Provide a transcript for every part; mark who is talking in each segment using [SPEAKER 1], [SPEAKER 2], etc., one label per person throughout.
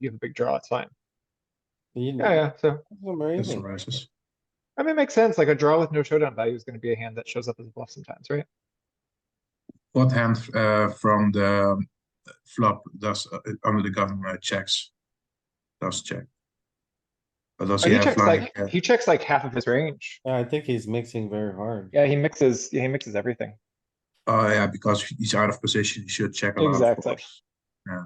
[SPEAKER 1] you have a big draw, it's fine.
[SPEAKER 2] You
[SPEAKER 1] Yeah, yeah, so,
[SPEAKER 2] know, amazing.
[SPEAKER 3] rises.
[SPEAKER 1] I mean, it makes sense, like a draw with no showdown value is gonna be a hand that shows up as a bluff sometimes, right?
[SPEAKER 3] What hand uh, from the flop does uh, under the gun uh, checks? Does check? Or does
[SPEAKER 1] Oh,
[SPEAKER 3] he
[SPEAKER 1] He
[SPEAKER 3] have
[SPEAKER 1] checks
[SPEAKER 3] like?
[SPEAKER 1] like,
[SPEAKER 3] uh,
[SPEAKER 1] he checks like half of his range.
[SPEAKER 2] Yeah, I think he's mixing very hard.
[SPEAKER 1] Yeah, he mixes, yeah, he mixes everything.
[SPEAKER 3] Oh yeah, because he's out of position. He should check a lot. of
[SPEAKER 1] Exactly.
[SPEAKER 3] flops.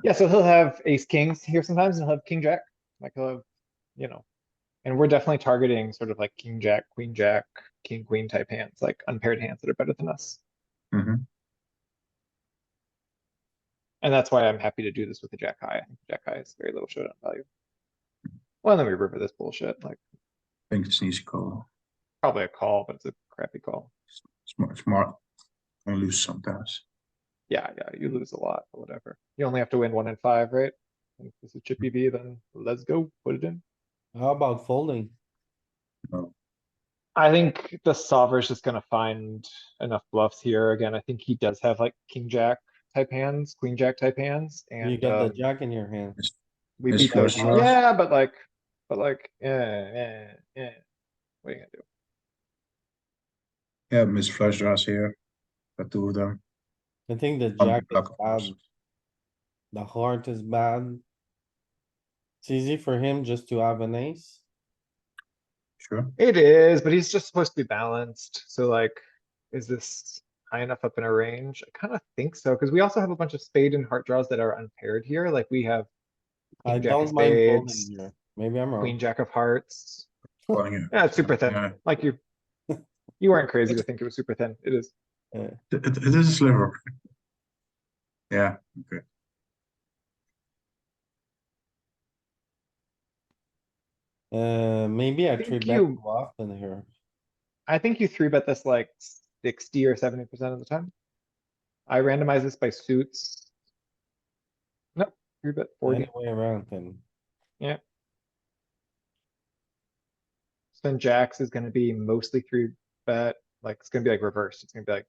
[SPEAKER 1] Yeah, so he'll have ace kings here sometimes and he'll have king jack, like he'll have, you know. And we're definitely targeting sort of like king jack, queen jack, king queen type hands, like unpaired hands that are better than us.
[SPEAKER 3] Mhm.
[SPEAKER 1] And that's why I'm happy to do this with the jack high. I think Jack high is very little showdown value. Well, and then we river this bullshit, like
[SPEAKER 3] I think it's an easy call.
[SPEAKER 1] probably a call, but it's a crappy call.
[SPEAKER 3] Smart, smart. And lose sometimes.
[SPEAKER 1] Yeah, yeah, you lose a lot, but whatever. Hmm. You only have to win one in five, right? If this is chippy V, then let's go, put it in.
[SPEAKER 2] How about folding?
[SPEAKER 1] I think the solver's just gonna find enough bluffs here. Again, I think he does have like king jack type hands, queen jack type hands,
[SPEAKER 2] You
[SPEAKER 1] and
[SPEAKER 2] got the
[SPEAKER 1] um,
[SPEAKER 2] jack in your hand.
[SPEAKER 1] we
[SPEAKER 3] his
[SPEAKER 1] beat those.
[SPEAKER 3] first draw.
[SPEAKER 1] Yeah, but like, but like, eh, eh, eh. What are you gonna do?
[SPEAKER 3] Yeah, miss flush draws here. Got two of them.
[SPEAKER 2] I think the
[SPEAKER 3] Um,
[SPEAKER 2] jack
[SPEAKER 3] block,
[SPEAKER 2] is
[SPEAKER 3] of
[SPEAKER 2] bad.
[SPEAKER 3] course.
[SPEAKER 2] The heart is bad. It's easy for him just to have an ace.
[SPEAKER 3] Sure.
[SPEAKER 1] It is, but he's just supposed to be balanced. So like, is this high enough up in a range? I kind of think so, because we also have a bunch of spade and heart draws that are unpaired here. Like we have
[SPEAKER 2] I
[SPEAKER 1] King jack of
[SPEAKER 2] don't mind folding
[SPEAKER 1] spades.
[SPEAKER 2] here. Maybe I'm
[SPEAKER 1] queen
[SPEAKER 2] wrong.
[SPEAKER 1] jack of hearts.
[SPEAKER 3] Calling it.
[SPEAKER 1] Yeah, it's super thin.
[SPEAKER 3] Yeah.
[SPEAKER 1] Like you, you weren't crazy to think it was super thin. It is.
[SPEAKER 3] It, it- it is a sliver. Yeah, okay.
[SPEAKER 2] Uh, maybe I
[SPEAKER 1] Think
[SPEAKER 2] three bet
[SPEAKER 1] you-
[SPEAKER 2] too often here.
[SPEAKER 1] I think you three bet this like sixty or seventy percent of the time. I randomize this by suits. Nope, three bet forty.
[SPEAKER 2] Any way around then.
[SPEAKER 1] So Then jacks is gonna be mostly three bet, like it's gonna be like reversed. It's gonna be like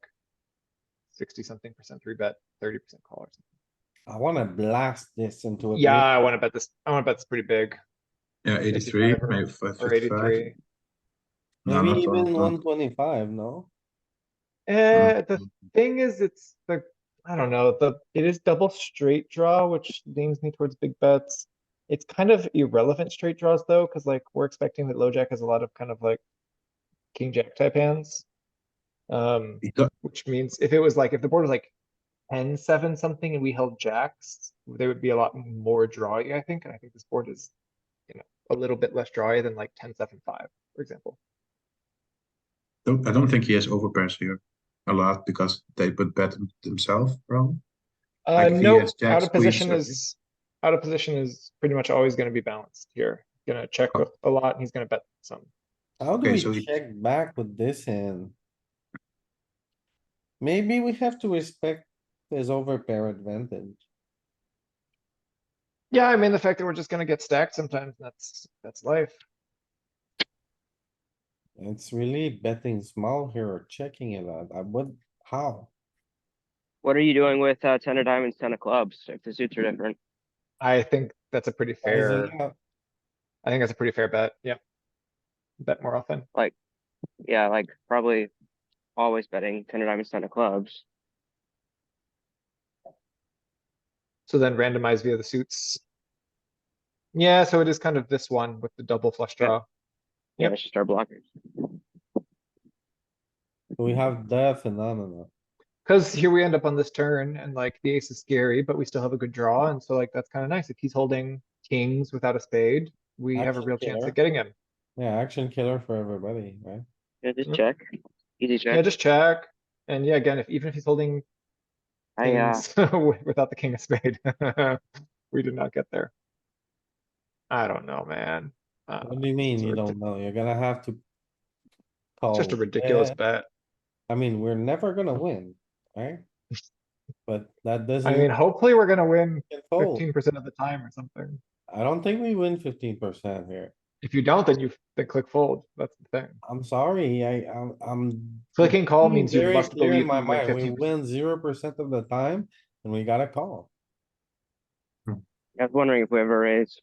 [SPEAKER 1] sixty something percent three bet, thirty percent call or something.
[SPEAKER 2] I wanna blast this into a. big-
[SPEAKER 1] Yeah, I wanna bet this, I wanna bet this pretty big,
[SPEAKER 3] Yeah, 83,
[SPEAKER 1] 55 or-
[SPEAKER 3] maybe five-
[SPEAKER 1] or
[SPEAKER 3] 55.
[SPEAKER 1] eighty-three.
[SPEAKER 3] No,
[SPEAKER 2] Maybe
[SPEAKER 3] not all
[SPEAKER 2] even
[SPEAKER 3] of them.
[SPEAKER 2] one twenty-five, no?
[SPEAKER 1] Eh, the thing is, it's the, I don't know, the, it is double straight draw, which leans me towards big bets. It's kind of irrelevant straight draws though, cuz like we're expecting that low jack has a lot of kind of like king jack type hands. Um,
[SPEAKER 3] He do-
[SPEAKER 1] which means if it was like, if the board was like 10-7 something and we held jacks, there would be a lot more drawy, I think, and I think this board is, you know, a little bit less drawy than like 10-7-5, for example.
[SPEAKER 3] don't- I don't think he has overpairs here a lot because they put bet themselves wrong.
[SPEAKER 1] Uh,
[SPEAKER 3] Like, if he
[SPEAKER 1] no,
[SPEAKER 3] has
[SPEAKER 1] out
[SPEAKER 3] jacks,
[SPEAKER 1] of position
[SPEAKER 3] queens,
[SPEAKER 1] is, out of position is pretty much always gonna be balanced here. Gonna check with a lot and he's gonna bet some.
[SPEAKER 2] How do
[SPEAKER 3] Okay, so
[SPEAKER 2] we
[SPEAKER 3] he-
[SPEAKER 2] check back with this hand? Maybe we have to respect his overpair advantage.
[SPEAKER 1] Yeah, I mean, the fact that we're just gonna get stacked sometimes, that's, that's life.
[SPEAKER 2] It's really betting small here or checking it out. I would, how?
[SPEAKER 4] What are you doing with uh, ten of diamonds, ten of clubs? If the suits are
[SPEAKER 1] Mm-hmm.
[SPEAKER 4] different,
[SPEAKER 1] I think that's a pretty
[SPEAKER 2] Why is it
[SPEAKER 1] fair,
[SPEAKER 2] not?
[SPEAKER 1] I think that's a pretty fair bet, yeah. Bet more often.
[SPEAKER 4] yeah, like probably always betting ten of diamonds, ten of clubs.
[SPEAKER 1] So then randomize via the suits. Yeah, so it is kind of this one with the double flush
[SPEAKER 4] Yeah.
[SPEAKER 1] draw.
[SPEAKER 4] Yeah,
[SPEAKER 1] Yep.
[SPEAKER 4] that's just our blockers.
[SPEAKER 2] We have the phenomena.
[SPEAKER 1] Cause here we end up on this turn and like the ace is scary, but we still have a good draw. And so like, that's kind of nice. If he's holding kings without a spade, we have a
[SPEAKER 2] Action
[SPEAKER 1] real chance
[SPEAKER 2] killer.
[SPEAKER 1] at getting him.
[SPEAKER 2] Yeah, action killer for everybody, right?
[SPEAKER 4] Yeah, just
[SPEAKER 1] Yep.
[SPEAKER 4] check. Easy
[SPEAKER 1] Yeah,
[SPEAKER 4] check.
[SPEAKER 1] just check. And yeah, again, if, even if he's holding
[SPEAKER 4] I uh,
[SPEAKER 1] kings without the king of spade, we did not get there. I don't know, man. Uh,
[SPEAKER 2] What do you mean?
[SPEAKER 1] it's a
[SPEAKER 2] You
[SPEAKER 1] ridic-
[SPEAKER 2] don't know? You're gonna have to.
[SPEAKER 1] it's Just a
[SPEAKER 2] call.
[SPEAKER 1] ridiculous
[SPEAKER 2] Yeah,
[SPEAKER 1] bet.
[SPEAKER 2] I mean, we're never gonna win, right? But that doesn't.
[SPEAKER 1] I mean, hopefully we're gonna win
[SPEAKER 2] mean,
[SPEAKER 1] fifteen percent of the time or something.
[SPEAKER 2] I don't think we win fifteen percent here.
[SPEAKER 1] If you don't, then you, then click fold. That's the thing.
[SPEAKER 2] I'm sorry, I, I'm, I'm.
[SPEAKER 1] Clicking call
[SPEAKER 2] being
[SPEAKER 1] means you
[SPEAKER 2] hmm, very
[SPEAKER 1] must
[SPEAKER 2] clear
[SPEAKER 1] believe
[SPEAKER 2] in
[SPEAKER 1] you
[SPEAKER 2] My
[SPEAKER 1] win
[SPEAKER 2] mind, we
[SPEAKER 1] fifteen
[SPEAKER 2] win zero percent of the time and we got a call.
[SPEAKER 4] I was wondering if we ever raise.